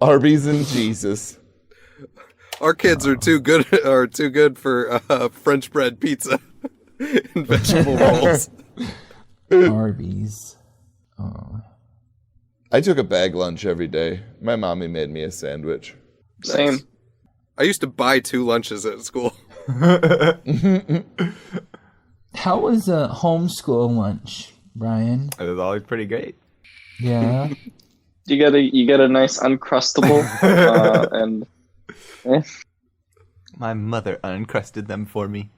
Arby's and Jesus. Our kids are too good are too good for uh, French bread pizza and vegetable rolls. Arby's. Oh. I took a bag lunch every day. My mommy made me a sandwich. Same. I used to buy two lunches at school. How was a homeschool lunch, Brian? It was always pretty great. Yeah. You get a you get a nice uncrustable uh, and eh. My mother uncrusted them for me.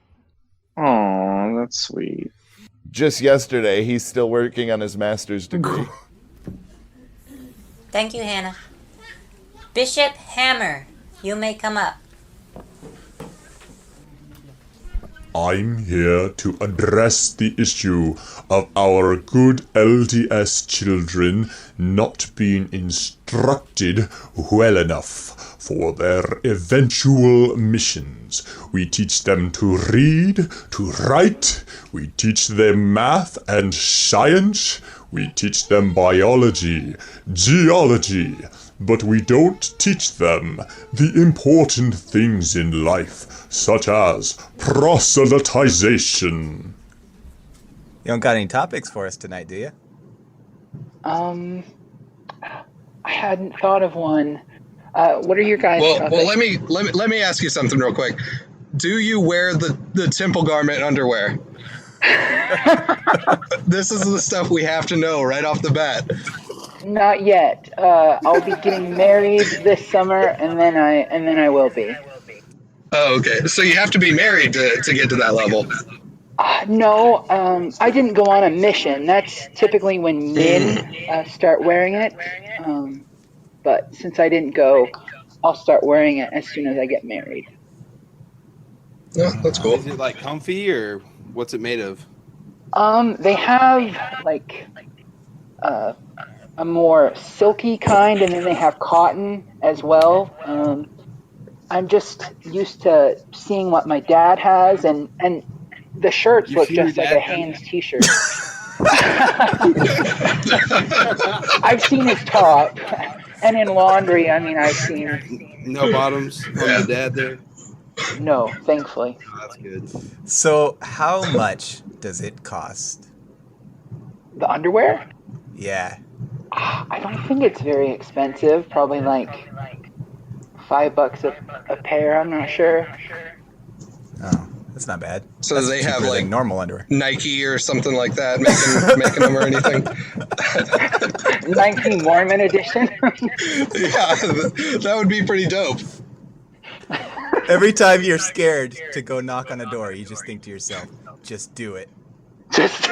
Aw, that's sweet. Just yesterday, he's still working on his master's degree. Thank you, Hannah. Bishop Hammer, you may come up. I'm here to address the issue of our good LDS children not being instructed well enough for their eventual missions. We teach them to read, to write, we teach them math and science, we teach them biology, geology, but we don't teach them the important things in life, such as proselytization. You don't got any topics for us tonight, do you? Um, I hadn't thought of one. Uh, what are your guys' Well, topics? well, let me let me let me ask you something real quick. Do you wear the the temple garment underwear? this is the stuff we have to know right off the bat. Not yet. Uh, I'll be getting married this summer, and then I and then I will be. Oh, okay. So you have to be married to, to get to that level. Uh, no, um, I didn't go on a mission. That's typically when men Mm. uh, start wearing it. Um, but since I didn't go, I'll start wearing it as soon as I get married. Yeah, that's cool. Is it like comfy or what's it made of? Um, they have like uh, a more silky kind, and then they have cotton as well. Um, I'm just used to seeing what my dad has, and and the shirts You've look seen your just like dad, a haven't Hanes T-shirt. I've seen his top, and in laundry, I mean, I've seen No bottoms on Yeah. the dad there. no, thankfully. Oh, that's good. So, how much does it cost? The underwear. Yeah. I don't think it's very expensive. Probably like five bucks a, a pair. I'm not sure. Oh, that's not bad. So That's they have, cheaper than like- normal underwear. Nike or something like that, making making them or anything. 19 Mormon edition. Yeah, th- that would be pretty dope. Every time you're scared to go knock on a door, you just think to yourself, just do it. Just.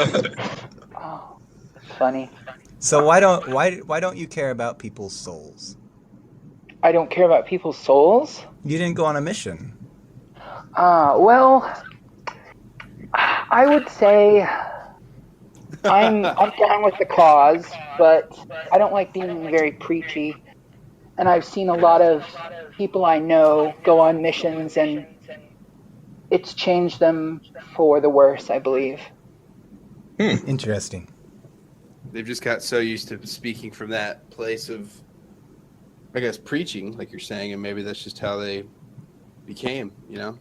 oh, that's funny. So why don't why why don't you care about people's souls? I don't care about people's souls. You didn't go on a mission. Uh, well, I would say I'm I'm down with the cause, but I don't like being very preachy. And I've seen a lot of people I know go on missions, and it's changed them for the worse, I believe. Interesting. They've just got so used to speaking from that place of, I guess, preaching, like you're saying, and maybe that's just how they became, you know?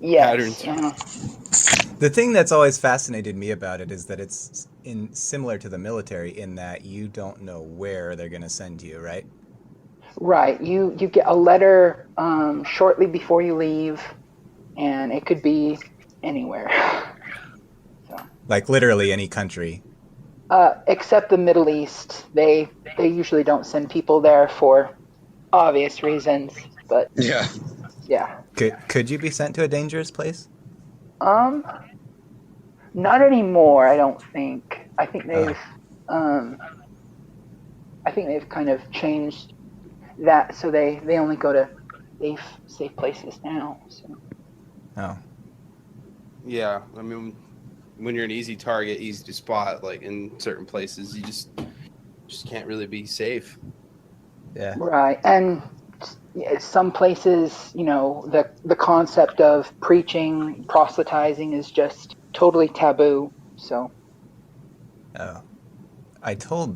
Yes. Patterns. uh, The thing that's always fascinated me about it is that it's in similar to the military in that you don't know where they're going to send you, right? Right. You you get a letter um, shortly before you leave, and it could be anywhere, Like literally any country. uh, except the Middle East. They they usually don't send people there for obvious reasons. But Yeah. yeah, Could could you be sent to a dangerous place? um, not anymore. I don't think. I think they've um, I think they've kind of changed that, so they they only go to safe safe places now. So. Oh, Yeah. I mean, when you're an easy target, easy to spot, like in certain places, you just just can't really be safe. yeah. Right, and yeah, some places, you know, the the concept of preaching, proselytizing is just totally taboo. So Oh. I told